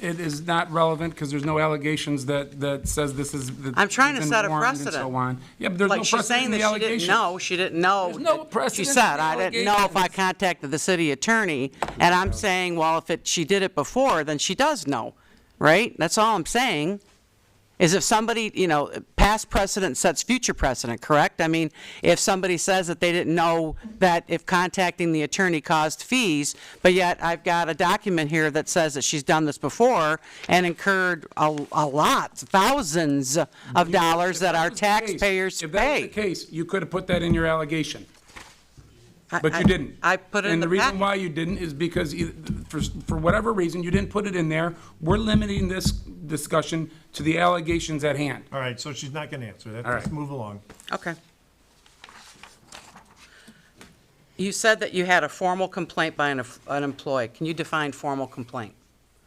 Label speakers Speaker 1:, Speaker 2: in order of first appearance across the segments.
Speaker 1: it is not relevant because there's no allegations that, that says this is. that
Speaker 2: I'm trying to
Speaker 1: it's been
Speaker 2: set a
Speaker 1: warned and
Speaker 2: precedent.
Speaker 1: so on. Yeah, but there's no
Speaker 2: Like, she's
Speaker 1: precedent
Speaker 2: saying
Speaker 1: in the
Speaker 2: that she didn't
Speaker 1: allegations.
Speaker 2: know, she didn't know.
Speaker 1: There's no
Speaker 2: that-
Speaker 1: precedent
Speaker 2: She
Speaker 1: in
Speaker 2: said,
Speaker 1: the
Speaker 2: I didn't know if I
Speaker 1: allegations."
Speaker 2: contacted the city attorney, and I'm saying, well, if it, she did it before, then she does know, right? That's all I'm saying, is if somebody, you know, past precedent sets future precedent, correct? I mean, if somebody says that they didn't know that if contacting the attorney caused fees, but yet I've got a document here that says that she's done this before and incurred a, a lot, thousands of dollars that our
Speaker 1: If that was the case-
Speaker 2: taxpayers pay.
Speaker 1: If that was the case, you could have put that in your allegation,
Speaker 2: I-
Speaker 1: but
Speaker 2: I-
Speaker 1: you didn't.
Speaker 2: I put it in the
Speaker 1: And the reason
Speaker 2: packet.
Speaker 1: why you didn't is because, e- for, for whatever reason, you didn't put it in there. We're limiting this discussion to the allegations at hand.
Speaker 3: All right, so she's not going to answer that.
Speaker 1: All
Speaker 3: Let's
Speaker 1: right.
Speaker 3: move along.
Speaker 2: Okay. You said that you had a formal complaint by an, an employee. Can you define formal complaint?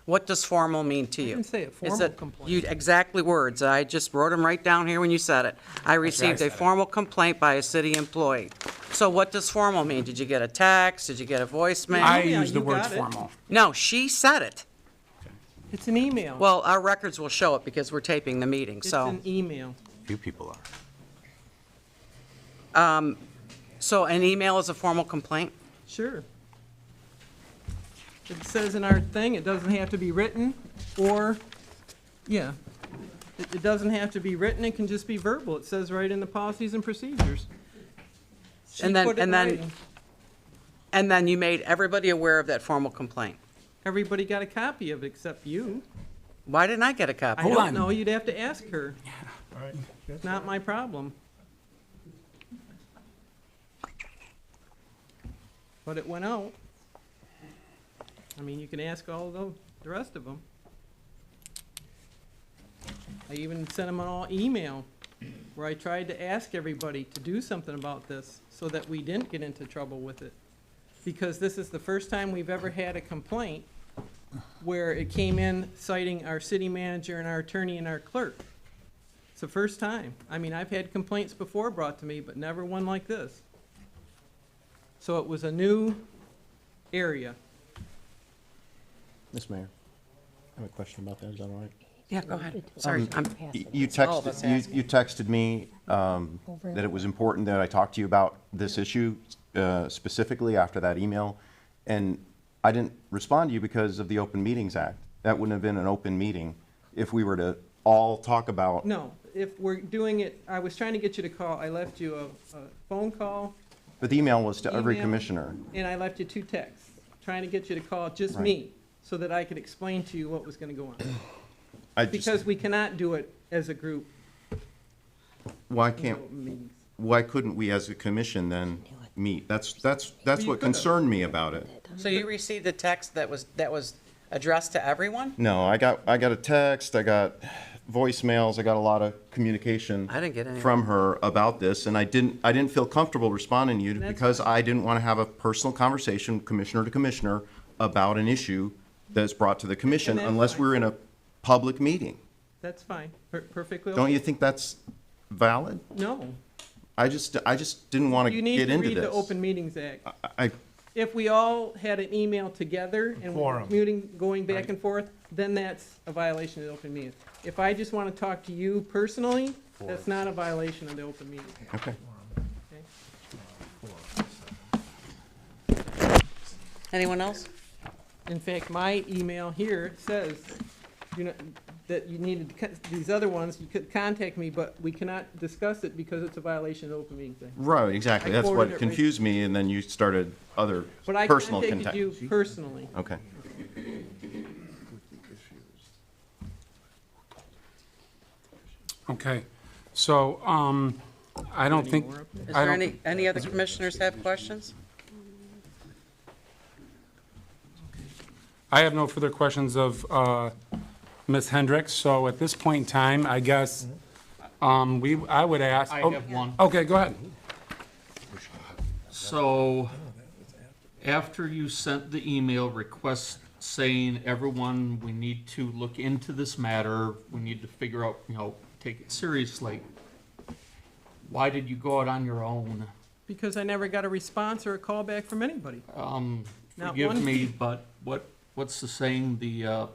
Speaker 2: What does formal mean to you?
Speaker 4: didn't say a
Speaker 2: Is
Speaker 4: formal
Speaker 2: it-
Speaker 4: complaint.
Speaker 2: You, exactly words. I just wrote them right down here when you said it. I received a
Speaker 1: said it.
Speaker 2: formal complaint by a city employee. So what does formal mean? Did you get a text? Did you get a voicemail?
Speaker 1: I
Speaker 4: yeah,
Speaker 1: use the
Speaker 4: you
Speaker 1: word
Speaker 4: got it.
Speaker 1: formal.
Speaker 2: No, she said it.
Speaker 4: It's an email.
Speaker 2: Well, our records will show it because we're taping the meeting,
Speaker 4: It's
Speaker 2: so.
Speaker 4: an email.
Speaker 5: Few people are.
Speaker 2: um, So an email is a formal complaint?
Speaker 4: Sure. It says in our thing, it doesn't have to be written, or, yeah. It, it doesn't have to be written, it can just be verbal. It says right in the policies and procedures. She
Speaker 2: And then-
Speaker 4: put it in
Speaker 2: and then-
Speaker 4: writing.
Speaker 2: And then you made everybody aware of that formal complaint.
Speaker 4: Everybody got a copy of it except you.
Speaker 2: Why didn't I get a copy?
Speaker 4: I
Speaker 1: Hold
Speaker 4: don't
Speaker 1: on.
Speaker 4: know, you'd have to ask her.
Speaker 3: All right.
Speaker 4: It's not my problem. But it went out. I mean, you can ask all the, the rest of them. I even sent them an all email where I tried to ask everybody to do something about this so that we didn't get into trouble with it. Because this is the first time we've ever had a complaint where it came in citing our city manager and our attorney and our clerk. It's the first time. I mean, I've had complaints before brought to me, but never one like this. So it was a new area.
Speaker 6: Ms. Mayor, I have a question about that, is that all right?
Speaker 2: Yeah, go ahead.
Speaker 1: Um,
Speaker 2: Sorry, I'm,
Speaker 6: You
Speaker 2: all of us
Speaker 6: texted,
Speaker 2: asking.
Speaker 6: you- you texted me um, that it was important that I talk to you about this issue uh, specifically after that email, and I didn't respond to you because of the Open Meetings Act. That wouldn't have been an open meeting if we were to all talk about.
Speaker 4: No, if we're doing it, I was trying to get you to call. I left you a, a phone call
Speaker 6: But the email was to every
Speaker 4: Email.
Speaker 6: commissioner.
Speaker 4: and I left you two texts, trying to get you to call just
Speaker 6: Right.
Speaker 4: me so that I could explain to you what was gonna go on.
Speaker 6: I just-
Speaker 4: Because we cannot do it as a group.
Speaker 6: Why
Speaker 4: in
Speaker 6: can't,
Speaker 4: open meetings.
Speaker 6: why couldn't we as a commission then meet? That's, that's, that's
Speaker 4: You
Speaker 6: what
Speaker 4: could have.
Speaker 6: concerned me about it.
Speaker 2: so you received a text that was, that was addressed to everyone?
Speaker 6: No, I got I got a text, I got voicemails, I got a lot of communication.
Speaker 2: I didn't get any.
Speaker 6: from her about this, and I didn't I didn't feel comfortable responding to you
Speaker 4: That's
Speaker 6: because I didn't want to have a personal conversation, commissioner to commissioner, about an issue that's brought to the commission
Speaker 4: And that's
Speaker 6: unless
Speaker 4: fine.
Speaker 6: we're in a public meeting.
Speaker 4: That's fine, Per- perfectly.
Speaker 6: Don't
Speaker 4: okay.
Speaker 6: you think that's valid?
Speaker 4: No.
Speaker 6: I just I just didn't want to
Speaker 4: You need
Speaker 6: get
Speaker 4: to
Speaker 6: into
Speaker 4: read
Speaker 6: this.
Speaker 4: the Open Meetings Act.
Speaker 6: I
Speaker 4: if we all had an email together and we were
Speaker 3: Quorum.
Speaker 4: muting, going back and forth, then that's a violation of the open meeting. If I just want to talk to you personally, that's not a violation of the open meeting.
Speaker 6: okay.
Speaker 2: Anyone else?
Speaker 4: In fact, my email here says, you know, that you needed, to con- these other ones, you could contact me, but we cannot discuss it because it's a violation of the open meetings. Act.
Speaker 6: Right, exactly.
Speaker 4: I
Speaker 6: That's
Speaker 4: forwarded it
Speaker 6: what
Speaker 4: right-
Speaker 6: confused me, and then you started other
Speaker 4: But I
Speaker 6: personal
Speaker 4: contacted
Speaker 6: contact.
Speaker 4: you personally.
Speaker 6: Okay.
Speaker 1: Okay, so, um, I don't think.
Speaker 2: Is
Speaker 1: I
Speaker 2: there
Speaker 1: don't-
Speaker 2: any, any other commissioners have questions?
Speaker 1: I have no further questions of uh, Ms. Hendricks, so at this point in time, I guess, um, we, I would ask.
Speaker 7: Mm-hmm. I
Speaker 1: oh,
Speaker 7: have one.
Speaker 1: Okay, go ahead.
Speaker 7: So, after you sent the email request saying, everyone, we need to look into this matter, we need to figure out, you know, take it seriously, why did you go out on your own?
Speaker 4: Because I never got a response or a call back from anybody.
Speaker 7: Um,
Speaker 4: Not
Speaker 7: forgive
Speaker 4: one.
Speaker 7: me, but what, what's the saying, the, uh,